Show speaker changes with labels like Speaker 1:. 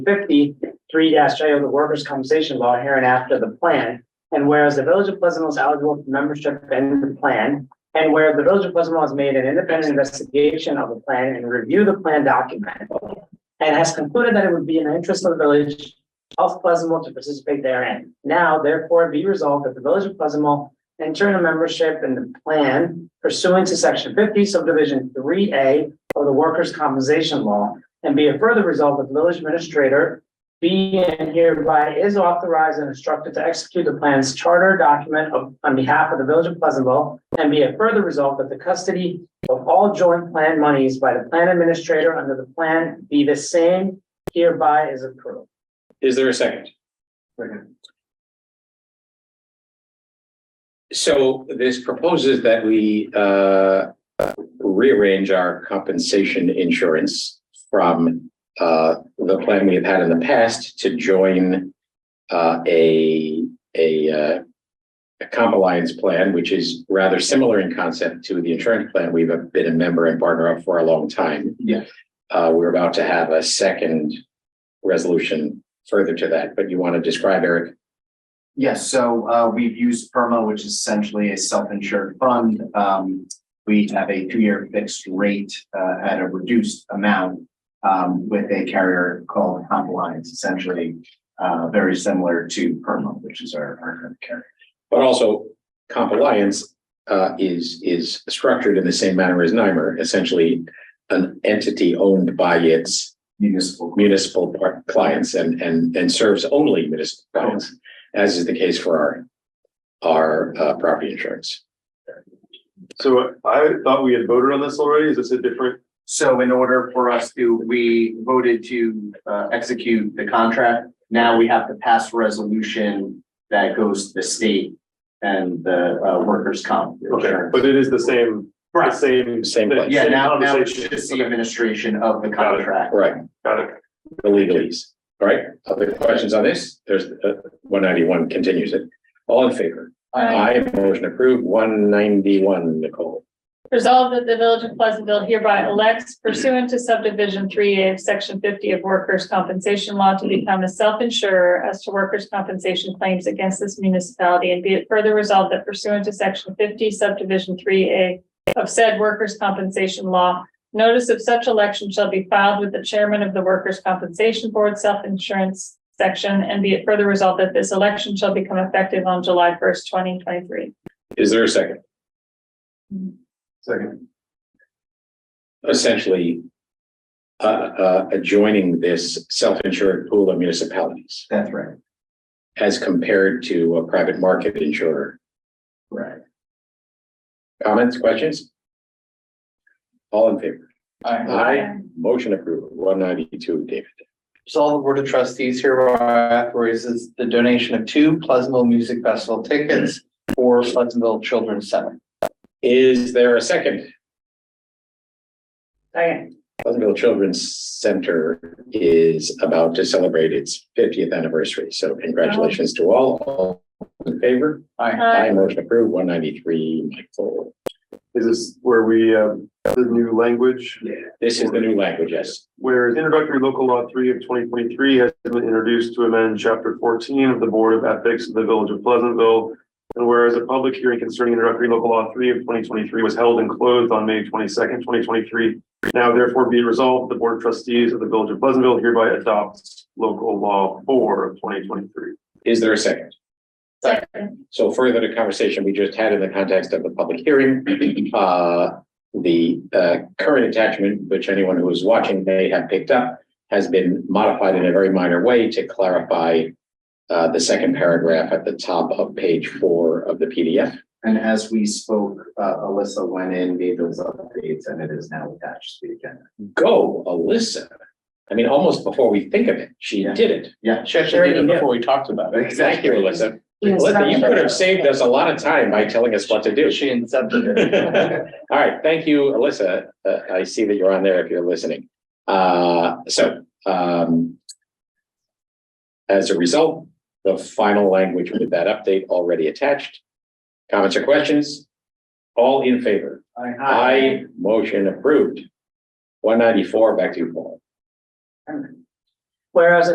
Speaker 1: fifty-three dash J of the Workers' Compensation Law hereinafter the plan. And whereas the Village of Pleasantville is eligible for membership in the plan, and where the Village of Pleasantville has made an independent investigation of the plan and reviewed the plan document. And has concluded that it would be in the interest of the village of Pleasantville to participate therein. Now therefore be resolved that the Village of Pleasantville enter into membership in the plan pursuant to section fifty subdivision three A of the Workers' Compensation Law. And be it further resolved that the village administrator be and hereby is authorized and instructed to execute the plan's charter document of, on behalf of the village of Pleasantville. And be it further resolved that the custody of all joint plan monies by the plan administrator under the plan be the same hereby is approved.
Speaker 2: Is there a second? So this proposes that we uh, rearrange our compensation insurance from uh, the plan we have had in the past to join uh, a, a uh, a comp alliance plan, which is rather similar in concept to the insurance plan we've been a member and partner of for a long time.
Speaker 3: Yeah.
Speaker 2: Uh, We're about to have a second resolution further to that, but you want to describe, Eric?
Speaker 3: Yes, so uh we've used PERMA, which is essentially a self-insured fund. Um, we have a two-year fixed rate uh at a reduced amount. Um, with a carrier called Compliance, essentially uh very similar to PERMA, which is our our current carrier.
Speaker 2: But also, comp alliance uh, is is structured in the same manner as NYMER, essentially an entity owned by its
Speaker 3: Municipal.
Speaker 2: municipal par- clients and and and serves only municipal clients, as is the case for our our uh, property insurance.
Speaker 4: So I thought we had voted on this already. Is this a different?
Speaker 3: So in order for us to, we voted to uh execute the contract. Now we have to pass a resolution that goes to the state and the uh workers' comp.
Speaker 4: Okay,
Speaker 3: insurance.
Speaker 4: but it is the same, the
Speaker 3: Right.
Speaker 4: same.
Speaker 2: Same place.
Speaker 4: same
Speaker 3: Yeah, now, now it's
Speaker 4: conversation.
Speaker 3: just the administration of the
Speaker 4: Got it.
Speaker 3: contract.
Speaker 2: Right,
Speaker 4: Got it.
Speaker 2: the legalese. All right, other questions on this? There's uh, one ninety-one continues it. All in favor? Aye, motion approved. One ninety-one, Nicole.
Speaker 5: Resolved that the Village of Pleasantville hereby elects pursuant to subdivision three A of section fifty of workers' compensation law to become a self-insurer as to workers' compensation claims against this municipality and be it further resolved that pursuant to section fifty subdivision three A of said workers' compensation law, notice of such election shall be filed with the chairman of the Workers' Compensation Board Self-Insurance Section and be it further resolved that this election shall become effective on July first, twenty twenty-three.
Speaker 2: Is there a second?
Speaker 4: Second.
Speaker 2: Essentially, uh, uh, adjoining this self-insured pool of municipalities
Speaker 3: That's right,
Speaker 2: as compared to a private market insurer.
Speaker 3: right.
Speaker 2: Comments, questions? All in favor? Aye. Motion approved. One ninety-two, David.
Speaker 6: Resolve the Board of Trustees hereby authorizes the donation of two Pleasantville Music Festival tickets for Pleasantville Children's Center.
Speaker 2: Is there a second?
Speaker 1: Second.
Speaker 2: Pleasantville Children's Center is about to celebrate its fiftieth anniversary, so congratulations to all. All in favor?
Speaker 6: Aye.
Speaker 5: Aye.
Speaker 2: Aye, motion approved. One ninety-three, Michael.
Speaker 4: Is this where we, um, the new language?
Speaker 2: This is the new language, yes.
Speaker 4: Whereas introductory local law three of twenty twenty-three has been introduced to amend chapter fourteen of the Board of Ethics of the Village of Pleasantville. And whereas a public hearing concerning introductory local law three of twenty twenty-three was held and closed on May twenty-second, twenty twenty-three. Now therefore be resolved, the Board of Trustees of the Village of Pleasantville hereby adopts local law four of twenty twenty-three.
Speaker 2: Is there a second?
Speaker 5: Second.
Speaker 2: So further to conversation we just had in the context of the public hearing, uh, the, uh, current attachment, which anyone who is watching may have picked up, has been modified in a very minor way to clarify, uh, the second paragraph at the top of page four of the PDF.
Speaker 3: And as we spoke, uh, Alyssa went in, made those updates, and it is now attached to the agenda.
Speaker 2: Go, Alyssa. I mean, almost before we think of it, she
Speaker 3: Yeah.
Speaker 2: did it.
Speaker 3: Yeah.
Speaker 6: She actually did it before we talked about it.
Speaker 2: Thank you, Alyssa. Alyssa, you could have saved us a lot of time by telling us what to do.
Speaker 6: She incepted it.
Speaker 2: All right, thank you, Alyssa. Uh, I see that you're on there if you're listening. Uh, so, um, as a result, the final language with that update already attached. Comments or questions? All in favor? Aye, motion approved. One ninety-four, back to you, Paul.
Speaker 1: Whereas